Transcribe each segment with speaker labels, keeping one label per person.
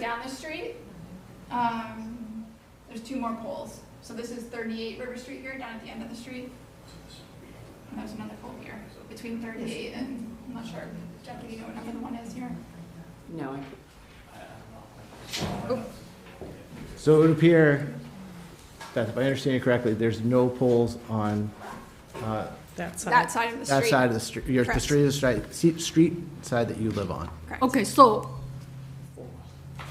Speaker 1: down the street, um, there's two more poles. So this is thirty-eight River Street here, down at the end of the street. And there's another pole here, between thirty-eight and, I'm not sure, Jeff, do you know what number the one is here?
Speaker 2: No, I-
Speaker 3: So it would appear that, if I understand you correctly, there's no poles on uh,
Speaker 4: That side.
Speaker 1: That side of the street.
Speaker 3: that side of the street, your, the
Speaker 1: Correct.
Speaker 3: street, is right- se- street side that you live on.
Speaker 1: Correct.
Speaker 5: Okay, so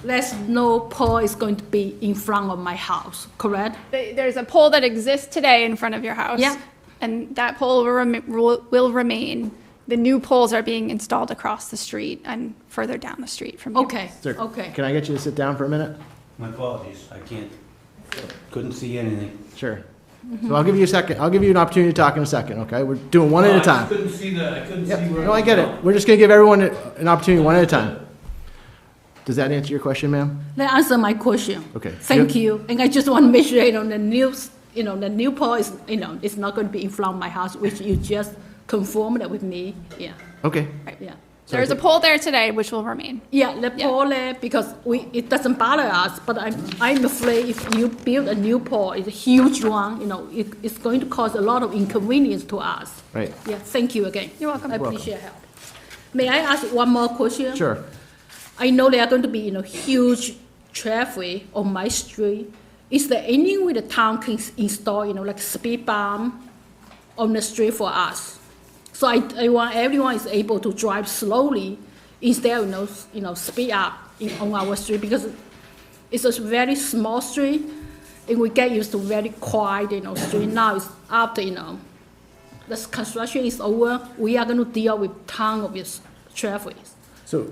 Speaker 5: there's no pole is going to be in front of my house, correct?
Speaker 1: They- There's a pole that exists today in front of your house.
Speaker 5: Yeah.
Speaker 1: And that pole will remi- will will remain. The new poles are being installed across the street and further down the street from you.
Speaker 5: Okay,
Speaker 3: Sir,
Speaker 5: okay.
Speaker 3: Can I get you to sit down for a minute?
Speaker 6: My apologies, I can't, couldn't see anything.
Speaker 3: Sure.
Speaker 1: Mm-hmm.
Speaker 3: So I'll give you a second, I'll give you an opportunity to talk in a second, okay? We're doing one at a
Speaker 6: Oh, I just
Speaker 3: time.
Speaker 6: couldn't see the, I couldn't see
Speaker 3: Yep,
Speaker 6: where.
Speaker 3: no, I get it. We're just gonna give everyone a- an opportunity, one at a time. Does that answer your question, ma'am?
Speaker 5: That answer my question.
Speaker 3: Okay.
Speaker 5: Thank
Speaker 3: Yep.
Speaker 5: you. And I just want to make sure, you know, the news, you know, the new pole is, you know, it's not going to be in front of my house, which you just confirmed with me. Yeah,
Speaker 3: Okay.
Speaker 5: yeah.
Speaker 3: So
Speaker 1: There's a pole there today which will remain.
Speaker 5: Yeah, the
Speaker 1: Yeah.
Speaker 5: pole there, because we, it doesn't bother us, but I'm, I'm afraid if you build a new pole, it's a huge one, you know, it, it's going to cause a lot of inconvenience to us.
Speaker 3: Right.
Speaker 5: Yeah, thank you again.
Speaker 1: You're welcome.
Speaker 5: I
Speaker 1: Welcome.
Speaker 5: appreciate help. May I ask one more question?
Speaker 3: Sure.
Speaker 5: I know there are going to be, you know, huge traffic on my street. Is there any way the town can s- install, you know, like speed bump on the street for us? So I, I want everyone is able to drive slowly instead of, you know, s- you know, speed up in, on our street because it's a very small street and we get used to very quiet, you know, street. Now it's after, you know, this construction is over, we are going to deal with ton of this traffic.
Speaker 3: So,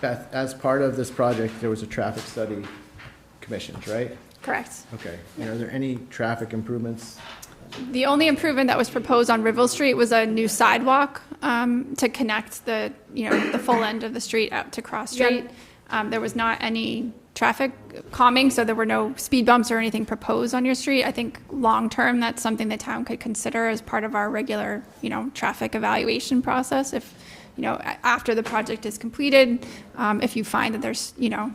Speaker 3: Beth, as part of this project, there was a traffic study commissioned, right?
Speaker 1: Correct.
Speaker 3: Okay. And are there any traffic improvements?
Speaker 1: The only improvement that was proposed on Rivel Street was a new sidewalk um, to connect the, you know, the full end of the street out to Cross
Speaker 5: Yeah.
Speaker 1: Street. Um, There was not any traffic calming, so there were no speed bumps or anything proposed on your street. I think long-term, that's something the town could consider as part of our regular, you know, traffic evaluation process. If, you know, a- after the project is completed, um, if you find that there's, you know,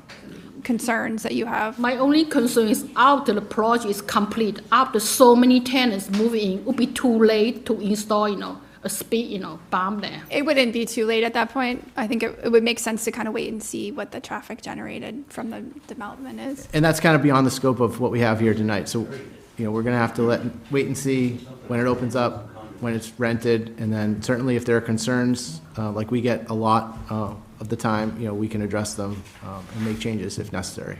Speaker 1: concerns that you have.
Speaker 5: My only concern is after the project is complete, after so many tenants move in, it would be too late to install, you know, a speed, you know, bomb there.
Speaker 1: It wouldn't be too late at that point. I think it, it would make sense to kind of wait and see what the traffic generated from the development is.
Speaker 3: And that's kind of beyond the scope of what we have here tonight, so, you know, we're gonna have to let, wait and see when it opens up, when it's rented, and then certainly if there are concerns, uh, like we get a lot, uh, of the time, you know, we can address them, um, and make changes if necessary.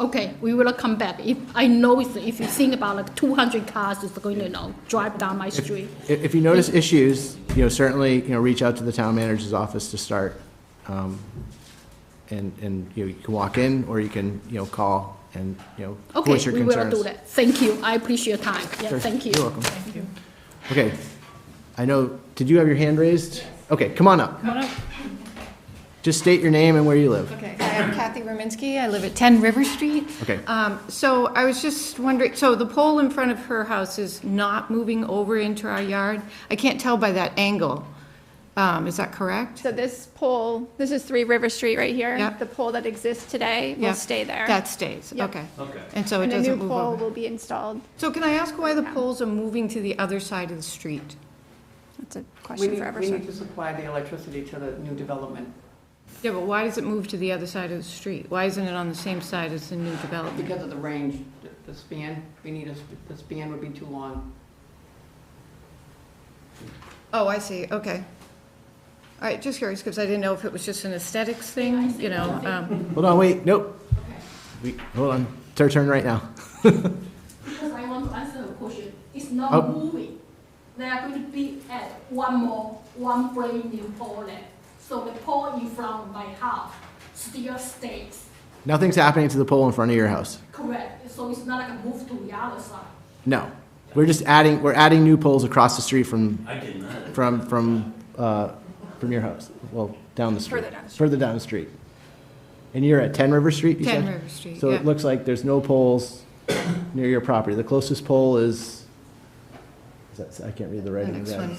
Speaker 5: Okay, we will come back. If, I know it's, if you think about like two hundred cars is going to, you know, drive down my street.
Speaker 3: If, if you notice issues, you know, certainly, you know, reach out to the town manager's office to start. um, And, and, you know, you can walk in, or you can, you know, call and, you know,
Speaker 5: Okay,
Speaker 3: voice your
Speaker 5: we
Speaker 3: concerns.
Speaker 5: will do that. Thank you. I appreciate your time. Yeah,
Speaker 3: Sure.
Speaker 5: thank you.
Speaker 3: You're welcome. Okay, I know, did you have your hand raised? Okay, come on up.
Speaker 4: Come on up.
Speaker 3: Just state your name and where you live.
Speaker 7: Okay, hi, I'm Kathy Rominsky, I live at 10 River Street.
Speaker 3: Okay.
Speaker 7: Um, So I was just wondering, so the pole in front of her house is not moving over into our yard? I can't tell by that angle. Um, Is that correct?
Speaker 1: So this pole, this is Three River Street right here.
Speaker 7: Yep.
Speaker 1: The pole that exists today
Speaker 7: Yeah.
Speaker 1: will stay there.
Speaker 7: That stays,
Speaker 1: Yep.
Speaker 7: okay.
Speaker 6: Okay.
Speaker 7: And so it
Speaker 1: And a new
Speaker 7: doesn't move
Speaker 1: pole
Speaker 7: over.
Speaker 1: will be installed.
Speaker 7: So can I ask why the poles are moving to the other side of the street?
Speaker 1: That's a
Speaker 8: We
Speaker 1: question
Speaker 8: need,
Speaker 1: for
Speaker 8: we need
Speaker 1: Eversource.
Speaker 8: to supply the electricity to the new development,
Speaker 7: Yeah, but why does it move to the other side of the street? Why isn't it on the same side as the new development?
Speaker 8: because of the range, the- the span, we need a, sp- the span would be too long.
Speaker 7: Oh, I see, okay. All right, just curious, because I didn't know if it was just an aesthetics thing, you know? um,
Speaker 3: Hold on, wait, nope. We, hold on, it's our turn right now.
Speaker 5: Because I want to answer the question, it's
Speaker 3: Oh.
Speaker 5: not moving. They are going to be at one more, one brand new pole there. So the pole in front of my house still stays,
Speaker 3: Nothing's happening to the pole in front of your house.
Speaker 5: correct? So it's not like a move to the other side.
Speaker 3: No. We're just adding, we're adding new poles across the street from,
Speaker 6: I did not.
Speaker 3: from, from, uh, from your house. Well, down the street.
Speaker 1: Further down the street.
Speaker 3: Further down the street. And you're at 10 River Street, you said?
Speaker 7: 10 River Street,
Speaker 3: So
Speaker 7: yeah.
Speaker 3: it looks like there's no poles near your property. The closest pole is, is that- I can't read the
Speaker 7: The
Speaker 3: writing.
Speaker 7: next
Speaker 3: Yeah.
Speaker 7: one.